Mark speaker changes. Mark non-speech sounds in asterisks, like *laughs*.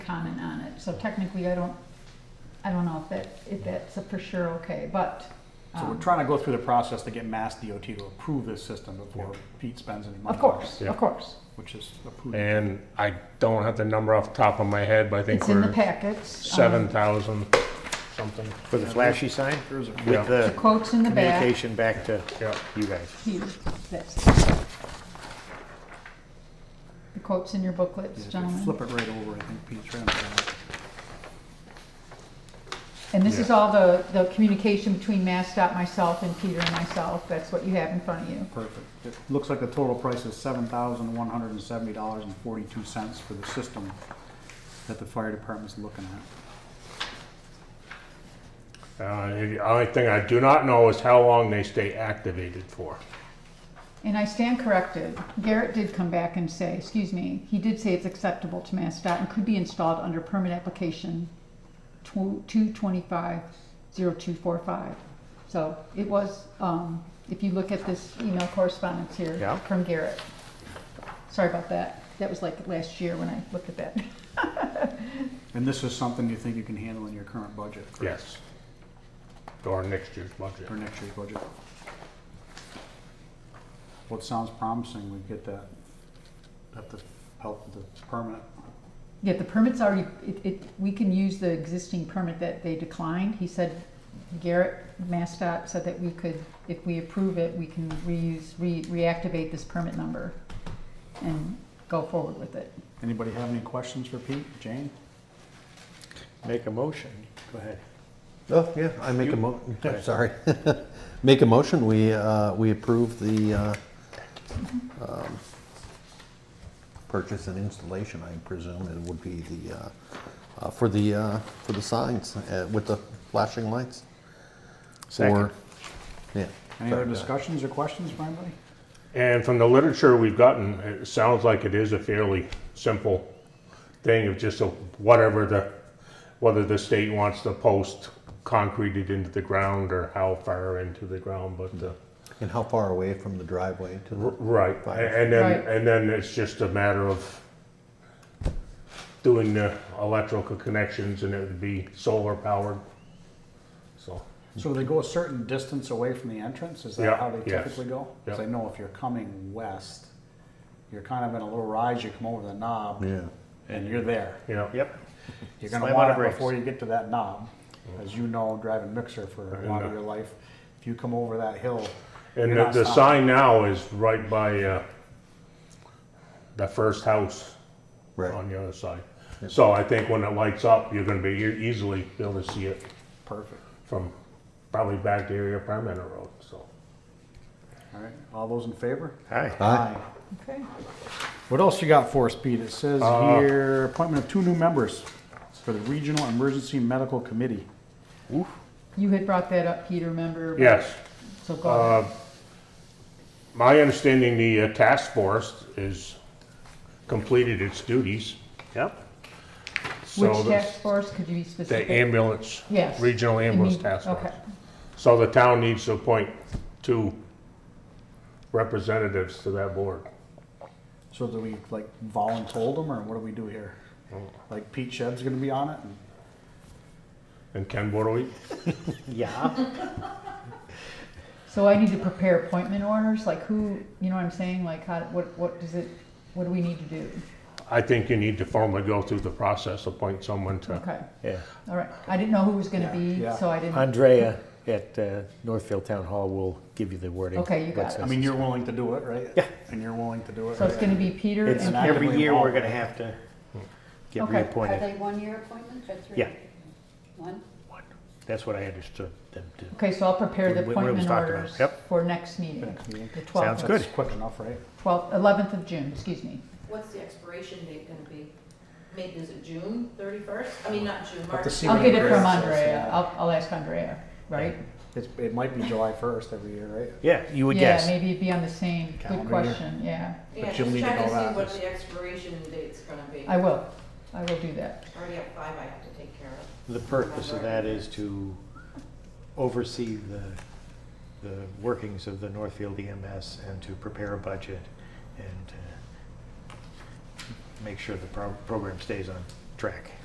Speaker 1: comment on it, so technically, I don't, I don't know if that, if that's a for sure okay, but.
Speaker 2: So we're
Speaker 1: um,
Speaker 2: trying to go through the process to get Mass DOT to approve this system before Pete spends any money.
Speaker 1: Of course,
Speaker 3: Yeah.
Speaker 1: of course.
Speaker 2: Which is approved.
Speaker 3: And I don't have the number off the top of my head, but I think
Speaker 1: It's in the
Speaker 3: we're
Speaker 1: packets. um,
Speaker 3: seven thousand something.
Speaker 4: For the flashy sign
Speaker 2: There's a-
Speaker 3: Yeah.
Speaker 4: with
Speaker 1: The
Speaker 4: the
Speaker 1: quote's in the back.
Speaker 4: communication back to
Speaker 3: Yeah,
Speaker 4: you guys.
Speaker 1: Here, that's. The quote's in your booklets,
Speaker 2: If you
Speaker 1: gentlemen.
Speaker 2: Flip it right over, I think Pete's right on that.
Speaker 1: And this is all the, the communication between MassDOT, myself, and Peter and myself. That's what you have in front of you.
Speaker 2: Perfect. It looks like the total price is seven thousand one hundred and seventy dollars and forty-two cents for the system that the fire department's looking at.
Speaker 3: Uh, the only thing I do not know is how long they stay activated for.
Speaker 1: And I stand corrected. Garrett did come back and say, excuse me, he did say it's acceptable to MassDOT and could be installed under permit application two twenty-five zero two four five. So it was, um, if you look at this email correspondence here
Speaker 4: Yeah.
Speaker 1: from Garrett. Sorry about that. That was like last year when I looked at that.
Speaker 2: And this is something you think you can handle in your current budget? correct?
Speaker 3: Yes. Or next year's budget.
Speaker 2: For next year's budget? Well, it sounds promising, we get that, have to help with the permit.
Speaker 1: Yeah, the permit's already, it, it, we can use the existing permit that they declined. He said, Garrett, MassDOT said that we could, if we approve it, we can reuse, re, reactivate this permit number and go forward with it.
Speaker 2: Anybody have any questions for Pete, Jane?
Speaker 4: Make a motion. Go ahead.
Speaker 5: Oh, yeah, I make a mo, sorry. *laughs* Make a motion, we, uh, we approve the, uh, um, purchase and installation, I presume it would be the, uh, uh, for the, uh, for the signs uh, with the flashing lights.
Speaker 4: Second.
Speaker 5: Or- Yeah.
Speaker 2: Any other
Speaker 5: sorry, uh,
Speaker 2: discussions or questions for anybody?
Speaker 3: And from the literature we've gotten, it sounds like it is a fairly simple thing of just a, whatever the, whether the state wants the post concreted into the ground or how far into the ground, but uh, the,
Speaker 5: And how far away from the driveway to
Speaker 3: r-
Speaker 5: the?
Speaker 3: right. A- And then,
Speaker 1: Right.
Speaker 3: and then it's just a matter of doing the electrical connections and it would be solar powered. So,
Speaker 2: So they go a certain distance away from the entrance, is that
Speaker 3: Yeah,
Speaker 2: how they
Speaker 3: yes.
Speaker 2: typically go? Because
Speaker 3: Yeah.
Speaker 2: I know if you're coming west, you're kind of in a little rise, you come over the knob,
Speaker 5: Yeah.
Speaker 2: and you're there.
Speaker 3: yeah.
Speaker 4: Yep.
Speaker 2: You're gonna
Speaker 4: Slam on
Speaker 2: want
Speaker 4: the
Speaker 2: it
Speaker 4: brakes.
Speaker 2: before you get to that knob. As you know, driving mixer for a lot of your life, if you come over that hill, you're
Speaker 3: And the,
Speaker 2: not
Speaker 3: the
Speaker 2: stopping.
Speaker 3: sign now is right by, uh, the first house.
Speaker 5: Right,
Speaker 3: on the other side. So I think when it lights up, you're gonna be e- easily able to see it
Speaker 2: Perfect,
Speaker 3: from probably back to area Permanent Road, so.
Speaker 2: all right, all those in favor?
Speaker 4: Hi.
Speaker 5: Aye.
Speaker 1: Okay.
Speaker 2: What else you got for us, Pete? It says
Speaker 3: Uh,
Speaker 2: here, appointment of two new members for the Regional Emergency Medical Committee.
Speaker 1: You had brought that up, Peter, remember?
Speaker 3: Yes,
Speaker 1: So go
Speaker 3: Uh,
Speaker 1: ahead.
Speaker 3: my understanding, the uh, task force is completed its duties.
Speaker 4: Yep.
Speaker 3: So
Speaker 1: Which
Speaker 3: the-
Speaker 1: task force, could you be
Speaker 3: The
Speaker 1: specific?
Speaker 3: ambulance,
Speaker 1: Yes.
Speaker 3: regional
Speaker 1: You
Speaker 3: ambulance
Speaker 1: mean-
Speaker 3: task force.
Speaker 1: Okay,
Speaker 3: So the town needs to appoint two representatives to that board.
Speaker 2: So do we like voluntold them, or what do we do here? Like Pete Shed's gonna be on it? and-
Speaker 3: And Ken, what do we,
Speaker 4: Yeah.
Speaker 1: so I need to prepare appointment orders, like who, you know what I'm saying, like how, what, what does it, what do we need to do?
Speaker 3: I think you need to formally go through the process, appoint someone to
Speaker 1: Okay,
Speaker 4: Yeah.
Speaker 1: all right, I didn't know who was gonna be,
Speaker 2: yeah.
Speaker 1: so I didn't.
Speaker 4: Andrea at uh, Northfield Town Hall will give you the wording.
Speaker 1: Okay, you got
Speaker 4: What's
Speaker 1: it.
Speaker 2: I mean, you're willing to do it, right?
Speaker 4: Yeah.
Speaker 2: And you're willing to do it.
Speaker 1: So it's
Speaker 2: right?
Speaker 1: gonna be Peter
Speaker 4: It's
Speaker 1: and
Speaker 2: not-
Speaker 1: Peter.
Speaker 4: every year we're gonna have to get
Speaker 1: Okay.
Speaker 6: Are
Speaker 4: reappointed.
Speaker 6: they one-year appointments or three?
Speaker 4: Yeah.
Speaker 6: One?
Speaker 4: That's what I understood them to.
Speaker 1: Okay, so I'll prepare the
Speaker 4: What- what it was
Speaker 1: appointment
Speaker 4: talked about.
Speaker 1: orders
Speaker 4: Yep.
Speaker 1: for next meeting,
Speaker 2: meeting.
Speaker 1: the
Speaker 4: Sounds
Speaker 1: twelfth,
Speaker 4: good.
Speaker 2: That's quick enough, right?
Speaker 1: twelfth, eleventh of June, excuse me.
Speaker 7: What's the expiration date gonna be? Maybe, is it June thirty-first? I mean, not June, March.
Speaker 2: to see
Speaker 1: I'll
Speaker 2: what
Speaker 1: get it
Speaker 2: Andrea
Speaker 1: from
Speaker 2: says,
Speaker 1: Andrea,
Speaker 2: yeah.
Speaker 1: I'll, I'll ask Andrea, right?
Speaker 2: It's, it might be July first every year, right?
Speaker 4: Yeah, you would
Speaker 1: Yeah,
Speaker 4: guess.
Speaker 1: maybe it'd be on the same, good
Speaker 2: Calendar year.
Speaker 1: question, yeah.
Speaker 7: Yeah,
Speaker 2: but you'll
Speaker 7: just
Speaker 2: need to
Speaker 7: check
Speaker 2: know
Speaker 7: and
Speaker 2: that.
Speaker 7: see what the expiration date's gonna be.
Speaker 1: I will, I will do that.
Speaker 7: Already have five I have to take care of.
Speaker 4: The purpose of that is to oversee the, the workings of the Northfield EMS and to prepare a budget and uh, make sure the pro- program stays on track.